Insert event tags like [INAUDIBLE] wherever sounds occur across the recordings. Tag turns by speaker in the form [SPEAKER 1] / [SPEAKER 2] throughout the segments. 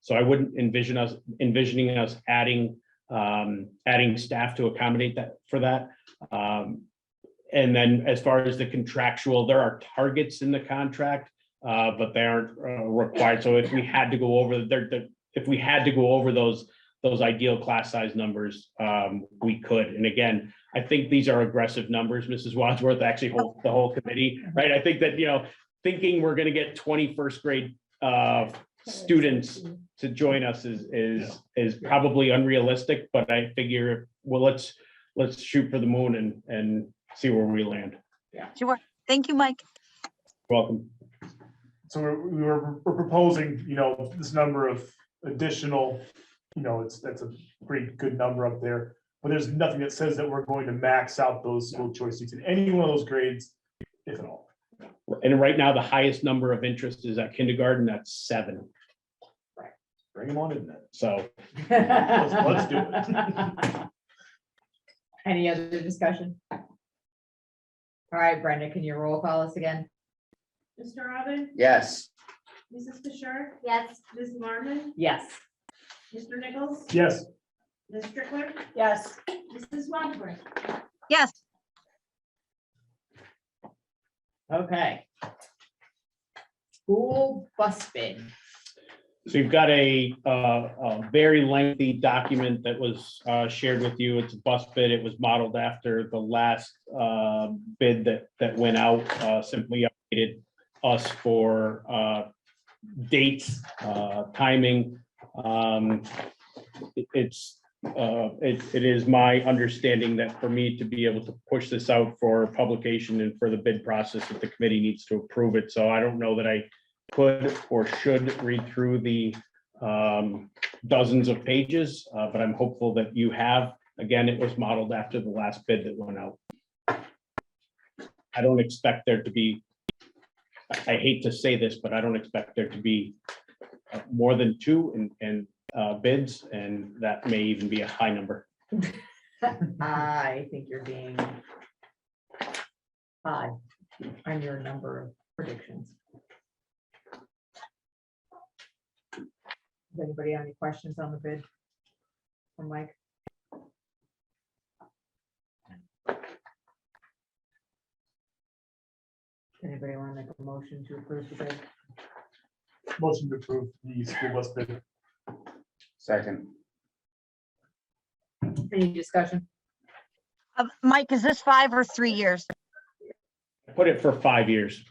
[SPEAKER 1] So I wouldn't envision us, envisioning us adding, um, adding staff to accommodate that, for that. Um, and then as far as the contractual, there are targets in the contract, uh, but they aren't, uh, required. So if we had to go over, there, there- if we had to go over those, those ideal class size numbers, um, we could. And again, I think these are aggressive numbers, Mrs. Wadsworth, actually, whole- the whole committee, right? I think that, you know, thinking we're gonna get twenty first grade, uh, students to join us is, is, is probably unrealistic, but I figure, well, let's, let's shoot for the moon and, and see where we land.
[SPEAKER 2] Sure. Thank you, Mike.
[SPEAKER 1] Welcome.
[SPEAKER 3] So we're, we were we're proposing, you know, this number of additional, you know, it's, that's a pretty good number up there. But there's nothing that says that we're going to max out those school choice seats in any one of those grades, if at all.
[SPEAKER 1] And right now, the highest number of interest is at kindergarten, that's seven.
[SPEAKER 3] Bring them on in then.
[SPEAKER 1] So
[SPEAKER 3] let's do
[SPEAKER 4] it. [LAUGHS] Any other discussion? All right, Brenda, can you roll call us again?
[SPEAKER 5] Mr. Robin?
[SPEAKER 6] Yes,
[SPEAKER 5] Mrs. Fisher?
[SPEAKER 7] Yes,
[SPEAKER 5] Ms. Larmen?
[SPEAKER 4] Yes.
[SPEAKER 5] Mr. Nichols?
[SPEAKER 3] Yes,
[SPEAKER 5] Ms. Strickler?
[SPEAKER 4] Yes.
[SPEAKER 5] Mrs. Wadsworth?
[SPEAKER 2] Yes,
[SPEAKER 4] Okay. School bus bid.
[SPEAKER 1] So you've got a, uh, a very lengthy document that was, uh, shared with you. It's a bus bid. It was modeled after the last, uh, bid that, that went out, uh, simply updated us for, uh, dates, uh, timing. Um, it- It's, uh, it, it is my understanding that for me to be able to push this out for publication and for the bid process, that the committee needs to approve it. So I don't know that I could or should read through the um, dozens of pages, uh, but I'm hopeful that you have. Again, it was modeled after the last bid that went out. I don't expect there to be, I- I hate to say this, but I don't expect there to be uh, more than two and, and uh, bids, and that may even be a high number.
[SPEAKER 4] I think you're being high on your number of predictions. Does anybody have any questions on the bid? From Mike? Anybody want to make a motion to approve the bid?
[SPEAKER 3] motion to approve the school bus bid.
[SPEAKER 6] second.
[SPEAKER 4] Any discussion?
[SPEAKER 2] Uh, Mike, is this five or three years?
[SPEAKER 1] I Put it for five years.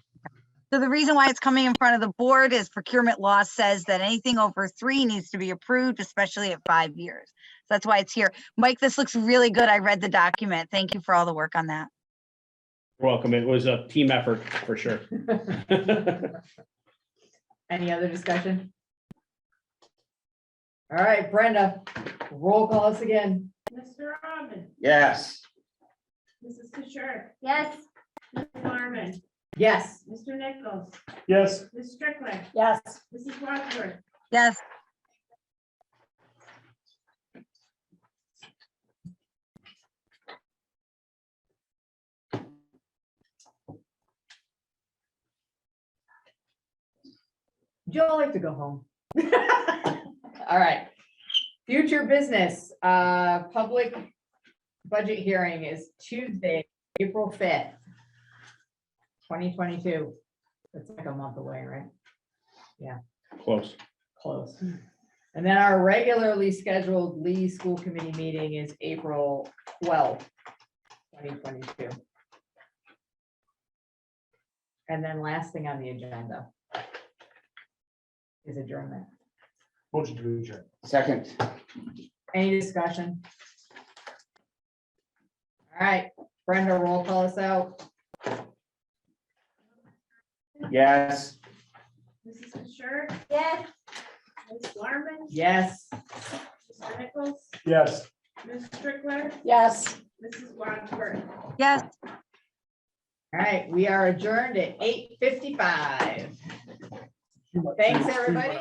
[SPEAKER 2] So the reason why it's coming in front of the board is procurement law says that anything over three needs to be approved, especially at five years. So That's why it's here. Mike, this looks really good. I read the document. Thank you for all the work on that.
[SPEAKER 1] You're Welcome. It was a team effort for sure.
[SPEAKER 4] Any other discussion? All right, Brenda, roll call us again.
[SPEAKER 5] Mr. Robin?
[SPEAKER 6] Yes,
[SPEAKER 5] Mrs. Fisher?
[SPEAKER 7] yes,
[SPEAKER 5] Ms. Larmen?
[SPEAKER 4] Yes.
[SPEAKER 5] Mr. Nichols?
[SPEAKER 3] Yes,
[SPEAKER 5] Ms. Strickler?
[SPEAKER 4] Yes.
[SPEAKER 5] Mrs. Wadsworth?
[SPEAKER 2] Yes,
[SPEAKER 4] Joe, I like to go home. [LAUGHS] All right. Future business, uh, public budget hearing is Tuesday, April fifth. Twenty twenty-two. That's like a month away, right?
[SPEAKER 1] Close.
[SPEAKER 4] Close. And then our regularly scheduled Lee School Committee meeting is April twelfth, twenty twenty-two. And then last thing on the agenda is adjournment.
[SPEAKER 3] motion to adjourn.
[SPEAKER 6] second.
[SPEAKER 4] Any discussion? All right, Brenda, roll call us out.
[SPEAKER 6] Yes,
[SPEAKER 5] Mrs. Fisher?
[SPEAKER 7] yes.
[SPEAKER 5] Ms. Larmen?
[SPEAKER 4] Yes.
[SPEAKER 5] Mr. Nichols?
[SPEAKER 3] Yes.
[SPEAKER 5] Ms. Strickler?
[SPEAKER 4] Yes.
[SPEAKER 5] Mrs. Wadsworth?
[SPEAKER 2] yes.
[SPEAKER 4] All right, we are adjourned at eight fifty-five. Thanks, everybody.